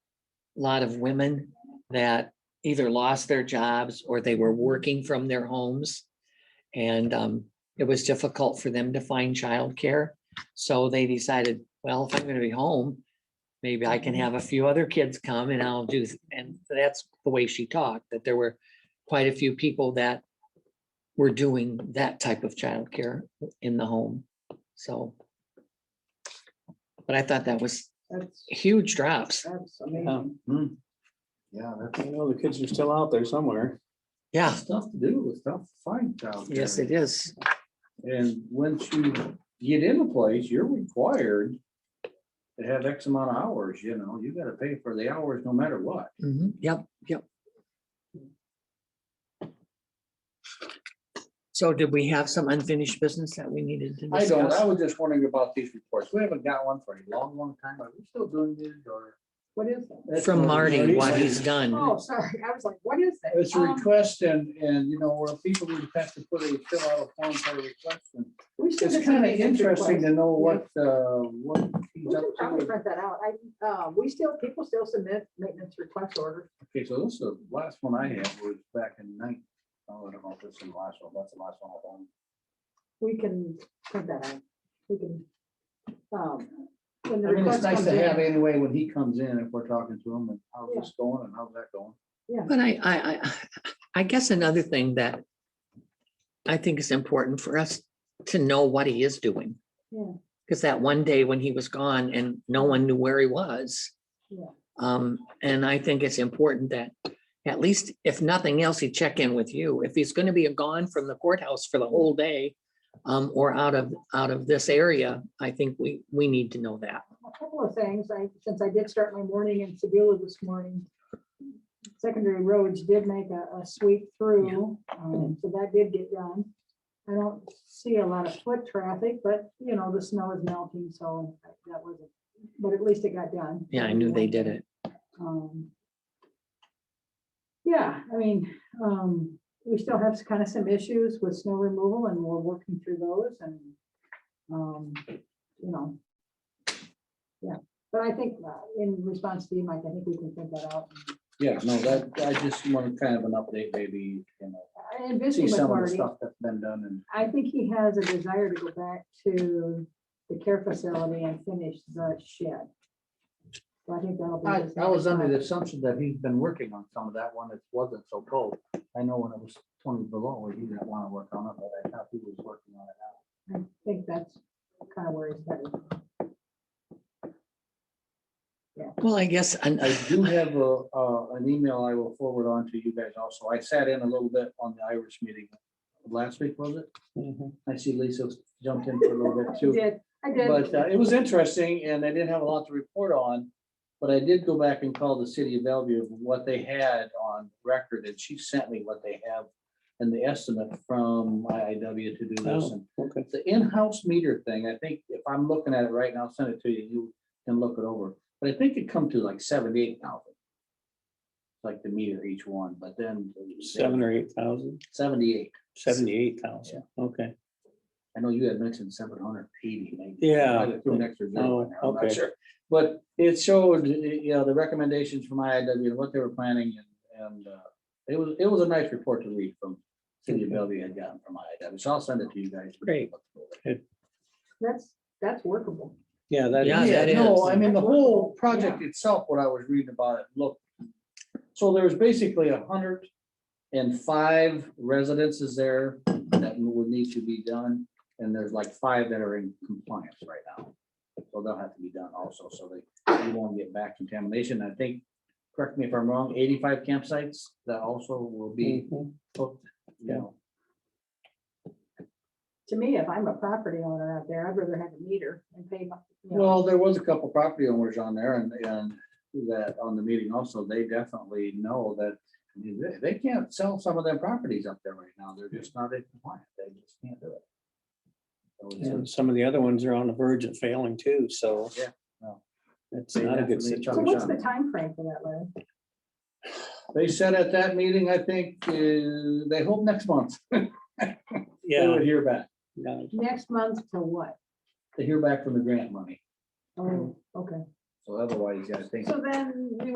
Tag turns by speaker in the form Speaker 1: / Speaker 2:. Speaker 1: lot of women that either lost their jobs or they were working from their homes. And um, it was difficult for them to find childcare. So they decided, well, if I'm going to be home, maybe I can have a few other kids come and I'll do, th- and that's the way she talked, that there were quite a few people that were doing that type of childcare in the home. So. But I thought that was
Speaker 2: That's,
Speaker 1: huge drops.
Speaker 2: that's
Speaker 3: Yeah,
Speaker 2: amazing.
Speaker 4: Yeah,
Speaker 3: I know the kids are still out there somewhere.
Speaker 1: Yeah,
Speaker 4: that's tough to do, it's tough to find down there.
Speaker 1: yes, it is.
Speaker 4: And once you get in a place, you're required to have X amount of hours, you know, you gotta pay for the hours no matter what.
Speaker 1: Mhm, Yep, yep. So did we have some unfinished business that we needed to
Speaker 4: I don't, I
Speaker 1: discuss?
Speaker 4: was just wondering about these reports. We haven't got one for a long, long time. Are we still doing this or?
Speaker 2: What is that?
Speaker 4: That's
Speaker 1: From
Speaker 4: what-
Speaker 1: Marty, what he's
Speaker 2: Oh,
Speaker 4: Mm-hmm.
Speaker 1: done.
Speaker 2: sorry, I was like, what is that?
Speaker 4: It's a
Speaker 2: Um,
Speaker 4: request and, and you know, where people would have to put a, fill out a form for a request. and
Speaker 2: We should
Speaker 4: It's
Speaker 2: have
Speaker 4: kind of
Speaker 2: made this
Speaker 4: interesting to
Speaker 2: request.
Speaker 4: know what, uh, what
Speaker 2: We
Speaker 4: he's up
Speaker 2: should probably
Speaker 4: to.
Speaker 2: print that out. I, uh, we still, people still submit maintenance request orders.
Speaker 4: Okay, so this is, the last one I had was back in nine. oh, I don't know if this is the last one, that's the last one. I've done.
Speaker 2: We can print that out. We can. um, when the
Speaker 4: I mean, it's
Speaker 2: request
Speaker 4: nice
Speaker 2: comes
Speaker 4: to
Speaker 2: in,
Speaker 4: have anyway when he comes in, if we're talking to him and how's this going and how's that going.
Speaker 1: But I, I, I, I guess another thing that I think is important for us to know what he is doing.
Speaker 2: Yeah.
Speaker 1: Because that one day when he was gone and no one knew where he was.
Speaker 2: Yeah.
Speaker 1: Um, and I think it's important that at least if nothing else, he check in with you. If he's gonna be gone from the courthouse for the whole day um, or out of, out of this area, I think we, we need to know that.
Speaker 2: A couple of things, I, since I did start my morning in Sevilla this morning, secondary roads did make a, a sweep through, um, so that did get done. I don't see a lot of foot traffic, but, you know, the snow is melting, so that was, but at least it got done.
Speaker 1: Yeah, I knew they did it.
Speaker 2: Um, Yeah, I mean, um, we still have kind of some issues with snow removal and we're working through those and, um, you know. Yeah, but I think uh, in response to you, Mike, I think we can think that out.
Speaker 4: Yeah, no, that, I just want kind of an update, maybe, you know,
Speaker 2: And busy
Speaker 4: see
Speaker 2: with
Speaker 4: some of the
Speaker 2: Marty,
Speaker 4: stuff that's been done and.
Speaker 2: I think he has a desire to go back to the care facility and finish the shed. So I think that'll be.
Speaker 4: I,
Speaker 2: his
Speaker 4: I was
Speaker 2: next
Speaker 4: under the
Speaker 2: project.
Speaker 4: assumption that he's been working on some of that one that wasn't so cold. I know when it was twenty below, he didn't want to work on it, but I thought he was working on it now.
Speaker 2: I think that's kind of where he's headed.
Speaker 1: Well, I guess, and
Speaker 4: I do have a, uh, an email I will forward on to you guys also. I sat in a little bit on the Irish meeting. Last week, was it?
Speaker 3: Mm-hmm.
Speaker 4: I see Lisa jumped in for a little bit too.
Speaker 2: I did, I did.
Speaker 4: But uh, it was interesting and I didn't have a lot to report on. But I did go back and call the city of Bellevue of what they had on record and she sent me what they have and the estimate from IIW to do this.
Speaker 3: Oh.
Speaker 4: And
Speaker 3: Okay.
Speaker 4: The in-house meter thing, I think if I'm looking at it right now, I'll send it to you, you can look it over. But I think it come to like seventy-eight thousand. Like the meter each one, but then
Speaker 3: Seven or eight thousand,
Speaker 4: seventy-eight.
Speaker 3: seventy-eight thousand, okay.
Speaker 4: I know you had mentioned seven hundred eighty.
Speaker 3: Yeah. Oh,
Speaker 4: okay.
Speaker 3: okay.
Speaker 4: sure, But it showed, you know, the recommendations from IIW, and what they were planning and, and uh, it was, it was a nice report to read from City of Bellevue had gotten from IIW. So I'll send it to you guys.
Speaker 1: Great.
Speaker 2: That's, that's workable.
Speaker 3: Yeah, that.
Speaker 1: Yeah,
Speaker 3: is-
Speaker 1: that
Speaker 4: Yeah, No,
Speaker 1: is.
Speaker 4: I mean, the whole project itself, what I was reading about it, look. So there was basically a hundred and five residences there that would need to be done. And there's like five that are in compliance right now. So they'll have to be done also, so they, we won't get back contamination. I think, correct me if I'm wrong, eighty-five campsites that also will
Speaker 1: Mm,
Speaker 4: be
Speaker 3: Mhm.
Speaker 4: hooked, you know.
Speaker 2: To me, if I'm a property owner out there, I'd rather have a meter and pay my, you know,
Speaker 4: Well, there was a couple property owners on there and, and that on the meeting also, they definitely know that I mean, they, they can't sell some of their properties up there right now. They're just not in compliance. They just can't do it. So it's a-
Speaker 3: And some of the other ones are on the verge of failing too, so.
Speaker 4: Yeah, no.
Speaker 3: It's
Speaker 4: They
Speaker 3: not a good
Speaker 4: definitely-
Speaker 3: situation.
Speaker 2: so what's the time frame for that, Larry?
Speaker 4: They said at that meeting, I think, uh, they hope next month they
Speaker 3: Yeah,
Speaker 4: would hear back.
Speaker 3: yeah.
Speaker 2: Next month to what?
Speaker 4: They hear back from the grant money.
Speaker 2: Oh, okay.
Speaker 4: So otherwise, I think.
Speaker 2: So then you